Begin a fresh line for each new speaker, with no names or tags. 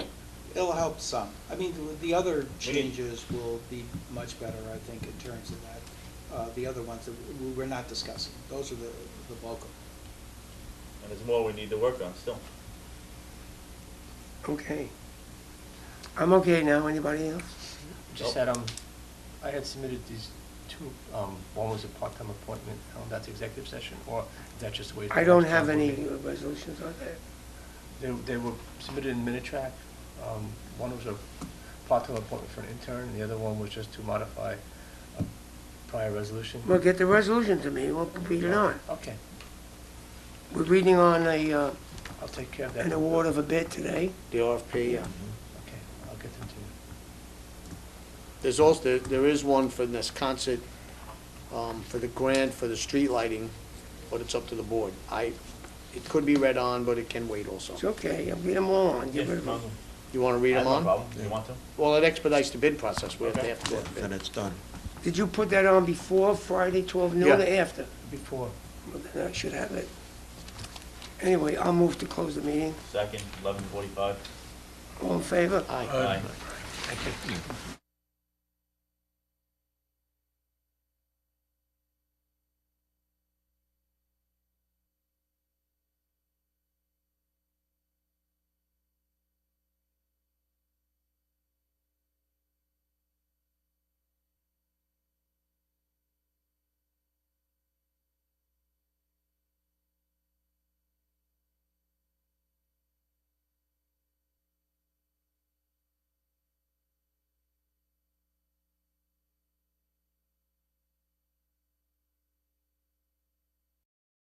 it'll help some. I mean, the other
We need-
changes will be much better, I think, in terms of that. Uh, the other ones that we- we're not discussing, those are the, the bulk of.
And there's more we need to work on still.
Okay. I'm okay now, anybody else?
Just that, um, I had submitted these two, um, one was a part-time appointment, I don't know if that's executive session, or is that just the way?
I don't have any resolutions on that.
They, they were submitted in Minitrack, um, one was a part-time appointment for an intern, and the other one was just to modify a prior resolution.
Well, get the resolution to me, we'll read it on.
Okay,
We're reading on a, uh,
I'll take care of that.
an award of a bid today.
The RFP, yeah.
Okay, I'll get them to you.
There's also, there- there is one for this concert, um, for the grant, for the street lighting, but it's up to the board. I, it could be read on, but it can wait
It's
also.
okay, I'll read them all on, get rid of them.
You want to read them
I have no
on?
problem. You want to?
Well, it expedites the bid process, we have to
Okay.
have to go out to bid.
Then it's done.
Did you put that on before Friday, 12 noon or
Yeah.
after?
Before,
Well, then I should have it. Anyway, I'll move to close the meeting.
Second, eleven forty-five.
All in favor?
Aye.
Aye.
thank you.